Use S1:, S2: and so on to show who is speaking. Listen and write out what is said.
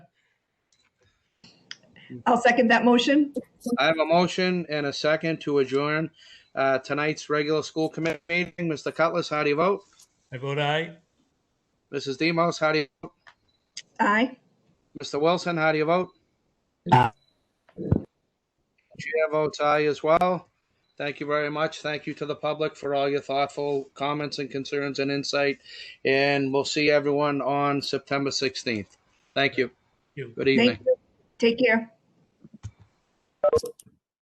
S1: I'll second that motion.
S2: I have a motion and a second to adjourn uh, tonight's regular school committee meeting. Mr. Cutlass, how do you vote?
S3: I vote aye.
S2: Mrs. Demos, how do you,
S1: Aye.
S2: Mr. Wilson, how do you vote?
S4: Aye.
S2: Chair votes aye as well. Thank you very much. Thank you to the public for all your thoughtful comments and concerns and insight. And we'll see everyone on September 16th. Thank you.
S3: You.
S2: Good
S1: Thank
S2: evening.
S1: you. Take care.